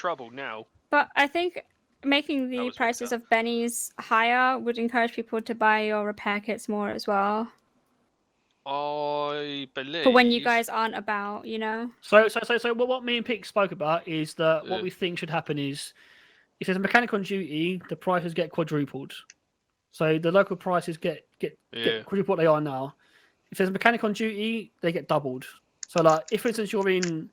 trouble now. But I think making was the mixed prices up. of bennies higher would encourage people to buy your repair kits more as well. I believe. For when you guys aren't about, you know? So, so, so, so, what, what me and Pete spoke about is that what Yeah. we think should happen is if there's a mechanic on duty, the prices get quadrupled. So the local prices get get, Yeah. get quadruple what they are now. If there's a mechanic on duty, they get doubled. So, like, if for instance you're in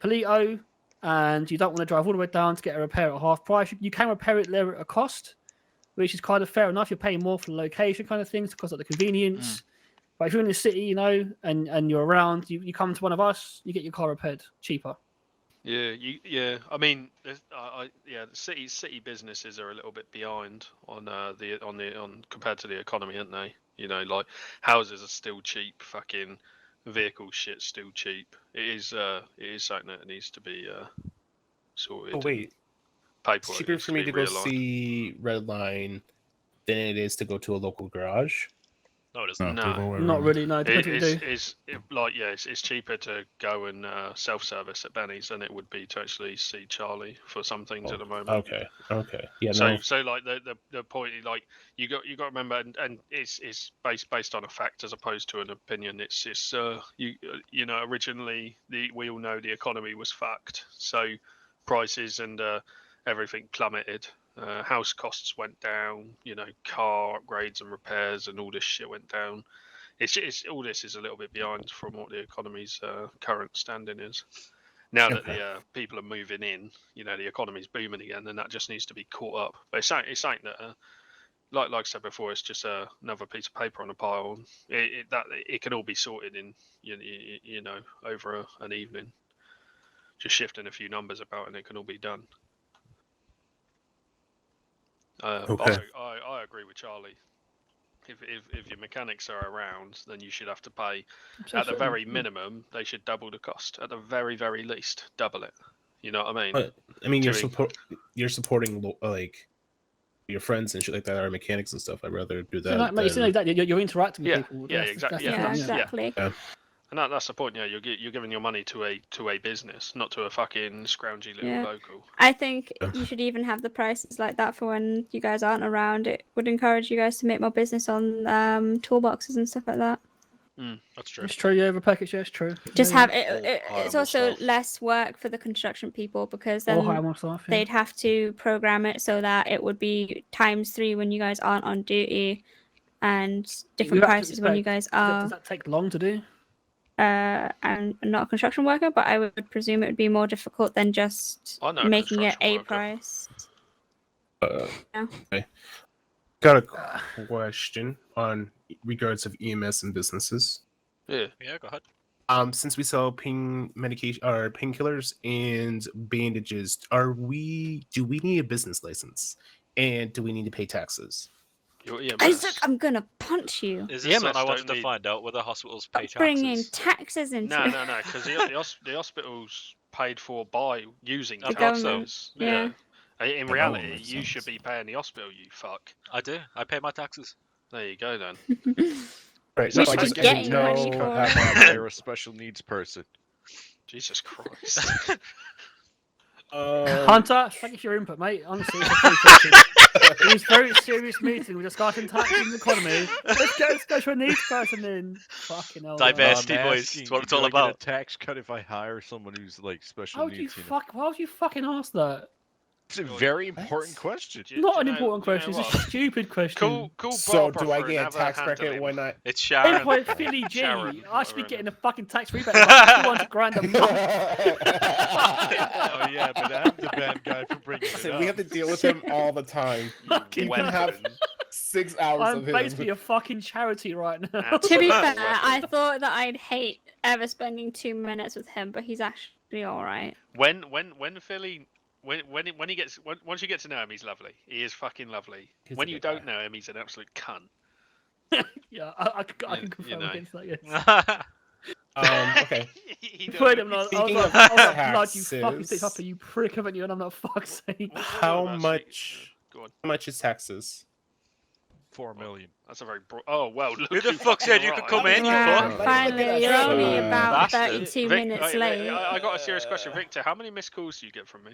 Palito and you don't want to drive all the way down to get a repair at half price, you can repair it there at a cost, which is kind of fair enough. You're paying more for the location kind of things because of the convenience. Mm. But if you're in the city, you know, and, and you're around, you, you come to one of us, you get your car repaired cheaper. Yeah, you, yeah. I mean, there's- I, I, yeah, the city city businesses are a little bit behind on uh, the on the on compared to the economy, aren't they? You know, like houses are still cheap, fucking vehicle shit's still cheap. It is uh, it is something that needs to be uh, sorted. Oh wait, it's Paperwork cheaper needs for me be to go realigned. see Redline than it is to go to a local garage. No, it No, isn't. No, the other way Not around. really, no. It- Depends what you it's, do. it's it, like yeah, it's, it's cheaper to go and uh, self-service at Benny's than it would be to actually see Charlie for some things Oh, at the moment. Okay, okay, yeah, so no, so like the, the the point is, like you got you got to remember and, and it's it's based based on a fact as opposed to an opinion. It's it's uh you you know originally the we all know the economy was fucked. So prices and uh, everything plummeted. Uh, house costs went down. You know car upgrades and repairs and all this shit went down. It's, it's all this is a little bit behind from what the economy's uh, current standing is. Now that Okay. the uh, people are moving in, you know the economy's booming again, then that just needs to be caught up. But it's something, it's something that, uh, like like I said before, it's just uh, another piece of paper on a pile. It, it that it can all be sorted in you, you, you know over a, an evening. Just shifting a few numbers about, and it can all be done. Uh, but Okay. I, I, I agree with Charlie. If, if if your mechanics are around, then you should have to pay at the Absolutely. very minimum, they should double the cost. At the very, very least, double it. You know what I mean? But- I mean you're Jimmy. support you're supporting lo- like your friends and shit like that are mechanics and stuff. I'd rather do So that. um, like, it's than- like that. You're, you're interacting with Yeah, people. yeah, That's- exact- that's the yeah, Yeah, thing, yeah. exactly. And that, that's the point. Yeah, you're gi- you're giving your money to a to a business, not to a fucking scroungy little Yeah. local. I think Yeah. you should even have the prices like that for when you guys aren't around. It would encourage you guys to make more business on um, toolboxes and stuff like that. Mm, that's true. It's true, yeah, repair kits, yeah, it's true. Just yeah, have Or it, it hire it's more also staff. less work for the construction people because yeah. then Or hire more staff. Yeah. they'd have to program it so that it would be times three when you guys aren't on duty and different have to prices when you guys Does, that, are does that take long to do? uh and I'm not a construction worker but i would presume it would be more difficult than just I know a making it construction a worker. price Uh, Yeah. okay. Got Uh, a question on regards of EMS and businesses. Yeah. Yeah, go ahead. Um, since we sell pain medication or painkillers and bandages, are we do we need a business license? And do we need to pay taxes? Your EMS. isaac i'm gonna punch you Is The this something EMS I don't wanted to need- find out whether hospitals pay Stop taxes? bringing taxes into No, it. no, no, because the, the, hos- the hospital's paid for by using The government, taxes. yeah. I- In that reality, makes you should sense. be paying the hospital. You fuck. I do. I pay my taxes. There you go then. Right. We so I should just be didn't getting money know for how it. much- They're a special needs person. Jesus Christ. Um, Hunter, thank you for your input, mate. Honestly, it's appreciated. it was a very serious meeting. We're discussing taxes and economy. Let's get a special needs person in. Fucking hell. man. Diverse. Diversity, I'm boys, asking, that's what it's do all I get about. A tax cut if I hire someone who's like special How would you needs. you know? fuck? Why would you fucking ask that? It's a very important question. Do you- do Not you an know- important do you know question. It's what? a stupid question. Cool, cool. so Barbara do I for get a another tax hand at bracket him. when I It's Eight Sharon. point Philly G. Sharon, I should be whatever. getting a fucking tax rebate. of Like Two hundred grand a month. oh yeah, but I'm the bad guy for bringing it Listen, up. we have to deal with him all the time. Fucking You can hell. have six hours I'm of basically him. a fucking charity right now. Absolutely. to be fair That's awesome. i thought that i'd hate ever spending two minutes with him but he's actually all right When when when Philly when when he- when he gets when, once you get to know him, he's lovely. He is fucking lovely. He's a when you good don't guy. know him, he's an absolute cunt. yeah, I, I, c- I You- you can confirm know. against that. Yes. Um, okay. He don't Wait, know. I'm not. I was Speaking like, of I was like, blood, you fucking taxes- stick up, you prick, haven't you? And I'm not fuck's sake. What- what How about much- Sneak- Go on. How much is taxes? Four million. That's a very broad. Oh well. Look, Who the you fuck said fucking you could right. come in, you Wow, fuck? finally you're only Uh, about bastard. Vic- 32 minutes wait, wait, late I, I got a serious question, Victor. How many missed calls do you get from me?